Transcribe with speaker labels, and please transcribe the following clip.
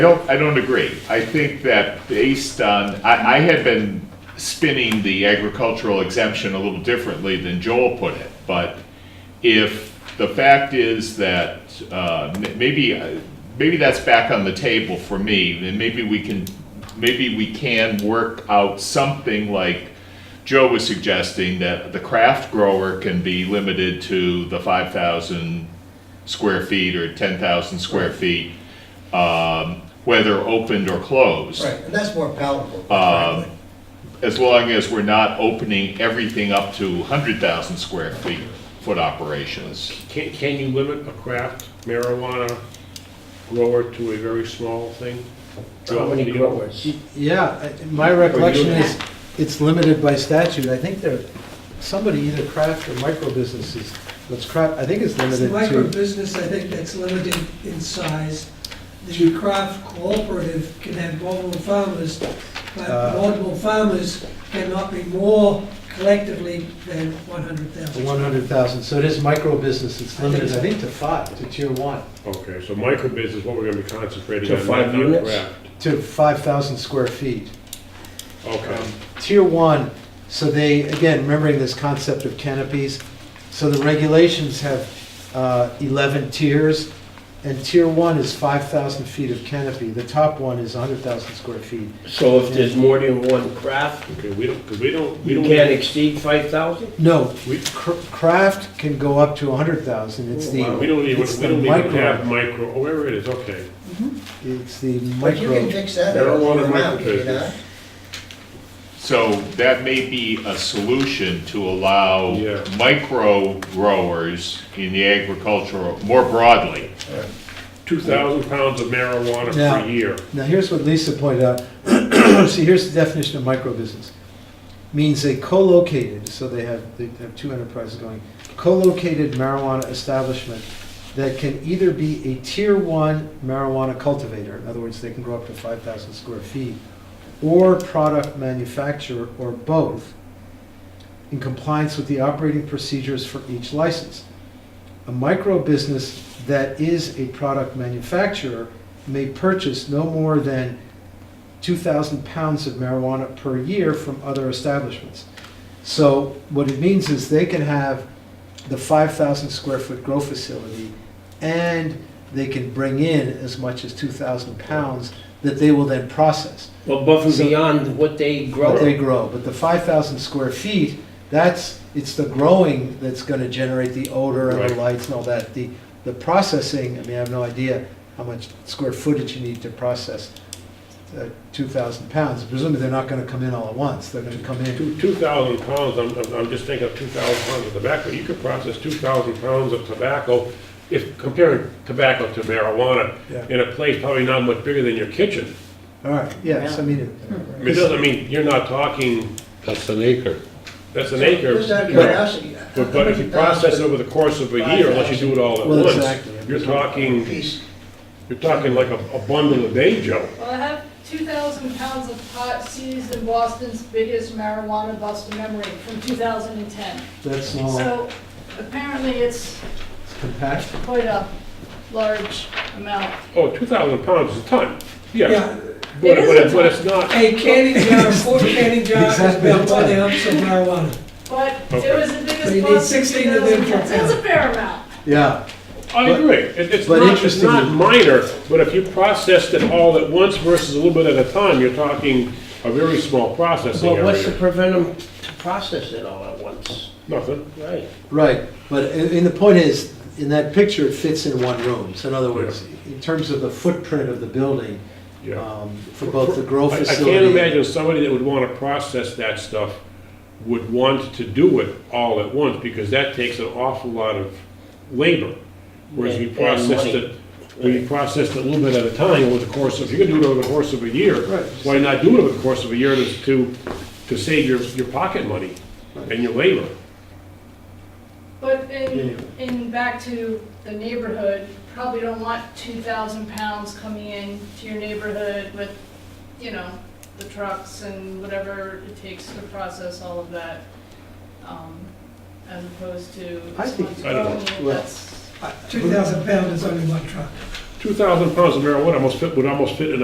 Speaker 1: I don't, I don't agree. I think that based on, I, I had been spinning the agricultural exemption a little differently than Joel put it, but if the fact is that, uh, m- maybe, uh, maybe that's back on the table for me, and maybe we can, maybe we can work out something like Joe was suggesting, that the craft grower can be limited to the five thousand square feet or ten thousand square feet, um, whether opened or closed.
Speaker 2: Right, and that's more palatable,
Speaker 3: Um,
Speaker 2: frankly.
Speaker 1: As long as we're not opening everything up to hundred thousand square feet, foot operations.
Speaker 3: Can, can you limit a craft marijuana grower to a very small thing?
Speaker 2: How many
Speaker 3: Joe, do you-
Speaker 2: growers?
Speaker 4: Yeah, I- my recollection is, it's limited by statute. I think there, somebody either craft or micro businesses, let's craft, I think it's
Speaker 5: It's micro
Speaker 4: limited to,
Speaker 5: business, I think that's limited in size. The craft cooperative can have multiple farmers, but
Speaker 4: Uh,
Speaker 5: multiple farmers cannot be more collectively than one hundred
Speaker 4: to
Speaker 5: thousand.
Speaker 4: 100,000. So it is micro business, it's
Speaker 5: I think
Speaker 4: limited, I
Speaker 5: so.
Speaker 4: think, to five, to tier one,
Speaker 3: Okay, so micro business, what we're gonna be concentrating
Speaker 6: To
Speaker 3: on,
Speaker 6: five
Speaker 3: not on
Speaker 6: units?
Speaker 3: craft.
Speaker 4: to 5,000 square feet.
Speaker 3: Okay,
Speaker 4: Tier one, so they, again, remembering this concept of canopies, so the regulations have uh, 11 tiers, and tier one is 5,000 feet of canopy. The top one is 100,000 square feet.
Speaker 6: So if there's more than one craft,
Speaker 3: okay, we don't, because we don't, we
Speaker 6: you
Speaker 3: don't.
Speaker 6: can't exceed five thousand?
Speaker 4: No,
Speaker 3: We-
Speaker 4: cr- craft can go up to 100,000, it's
Speaker 3: Wow, We
Speaker 4: the,
Speaker 3: don't even,
Speaker 4: it's
Speaker 3: we
Speaker 4: the
Speaker 3: don't even
Speaker 4: micro.
Speaker 3: have micro, oh, wherever it is, okay.
Speaker 4: it's the
Speaker 2: But you can
Speaker 4: micro.
Speaker 2: fix that
Speaker 3: There are a lot
Speaker 2: earlier
Speaker 3: of
Speaker 2: amount, can you
Speaker 3: micro
Speaker 2: not?
Speaker 1: So that may be a solution to allow
Speaker 3: Yeah.
Speaker 1: micro growers in the agricultural, more broadly.
Speaker 3: Two thousand pounds of marijuana
Speaker 4: Now-
Speaker 3: per year.
Speaker 4: Now, here's what Lisa pointed out. See, here's the definition of micro business. Means a co-located, so they have, they have two enterprises going, co-located marijuana establishment that can either be a tier one marijuana cultivator, in other words, they can grow up to 5,000 square feet, or product manufacturer, or both, in compliance with the operating procedures for each license. A micro business that is a product manufacturer may purchase no more than 2,000 pounds of marijuana per year from other establishments. So what it means is they can have the 5,000 square foot grow facility and they can bring in as much as 2,000 pounds that they will then process,
Speaker 6: Well, above and
Speaker 4: So-
Speaker 6: beyond what they
Speaker 4: what they
Speaker 6: grow.
Speaker 4: grow. But the 5,000 square feet, that's, it's the growing that's going to generate the odor and the
Speaker 3: Right.
Speaker 4: lights and all that. The, the processing, I mean, I have no idea how much square footage you need to process uh, 2,000 pounds. Presumably, they're not going to come in all at once, they're going to come in.
Speaker 3: Two, two thousand pounds, I'm, I'm- I'm just thinking of two thousand pounds of tobacco, you could process two thousand pounds of tobacco, if comparing tobacco to marijuana,
Speaker 4: Yeah.
Speaker 3: in a place probably not much bigger than your kitchen.
Speaker 4: All right, yes, I mean,
Speaker 3: I
Speaker 4: it-
Speaker 3: mean, It doesn't mean, you're not talking,
Speaker 7: That's an acre.
Speaker 3: that's an acre.
Speaker 2: Just out of
Speaker 3: you know,
Speaker 2: curiosity.
Speaker 3: But, but if you process it over the course of a year, unless you do it all at
Speaker 4: Well, exactly.
Speaker 3: once, you're talking,
Speaker 2: Piece,
Speaker 3: you're talking like a, a bundle a day, Joe.
Speaker 8: Well, I have 2,000 pounds of pot seized in Boston's biggest marijuana bust in memory from 2010.
Speaker 4: that's all
Speaker 8: Hmm. So apparently it's
Speaker 4: It's compact.
Speaker 8: quite a large amount.
Speaker 3: Oh, two thousand pounds is a ton, yeah.
Speaker 5: Yeah,
Speaker 3: But, but
Speaker 8: It is a
Speaker 3: it- but it's not,
Speaker 5: a canning jar, four canning jars, is about
Speaker 4: Oh, Exactly.
Speaker 5: one ounce of marijuana.
Speaker 8: But
Speaker 3: Okay.
Speaker 8: it was the
Speaker 5: So you
Speaker 8: biggest
Speaker 5: need
Speaker 8: bust in
Speaker 5: 16 of them
Speaker 8: 2010.
Speaker 5: for
Speaker 8: That's a fair amount.
Speaker 4: Yeah,
Speaker 3: I
Speaker 4: But-
Speaker 3: agree, It- it's
Speaker 4: but
Speaker 3: not, it's
Speaker 4: interestingly-
Speaker 3: not minor, but if you processed it all at once versus a little bit at a time, you're talking a very small processing
Speaker 6: Well, what's to
Speaker 3: area.
Speaker 6: prevent them to process it all at once?
Speaker 3: Nothing,
Speaker 6: Right.
Speaker 4: right, but, and and the point is, in that picture, it fits in one room. So in other words, in terms of the footprint of the building,
Speaker 3: yeah.
Speaker 4: um, for both the grow
Speaker 3: I I
Speaker 4: facility.
Speaker 3: can't imagine somebody that would want to process that stuff would want to do it all at once, because that takes an awful lot of labor. Whereas we
Speaker 6: And- and
Speaker 3: processed
Speaker 6: money.
Speaker 3: it, we processed it a little bit at a time over the course of, if you're gonna do it over the course of a year,
Speaker 4: Right.
Speaker 3: why not do it over the course of a year to- to, to save your, your pocket money and your labor?
Speaker 8: But in, in back to the neighborhood, probably don't want 2,000 pounds coming in to your neighborhood with, you know, the trucks and whatever it takes to process all of that, um, as opposed to.
Speaker 4: I think-
Speaker 8: someone's
Speaker 3: I don't know.
Speaker 8: growing it,
Speaker 4: Well,
Speaker 8: that's-
Speaker 5: Two thousand pounds is only one truck.
Speaker 1: two thousand pounds of marijuana almost fit, would almost fit in a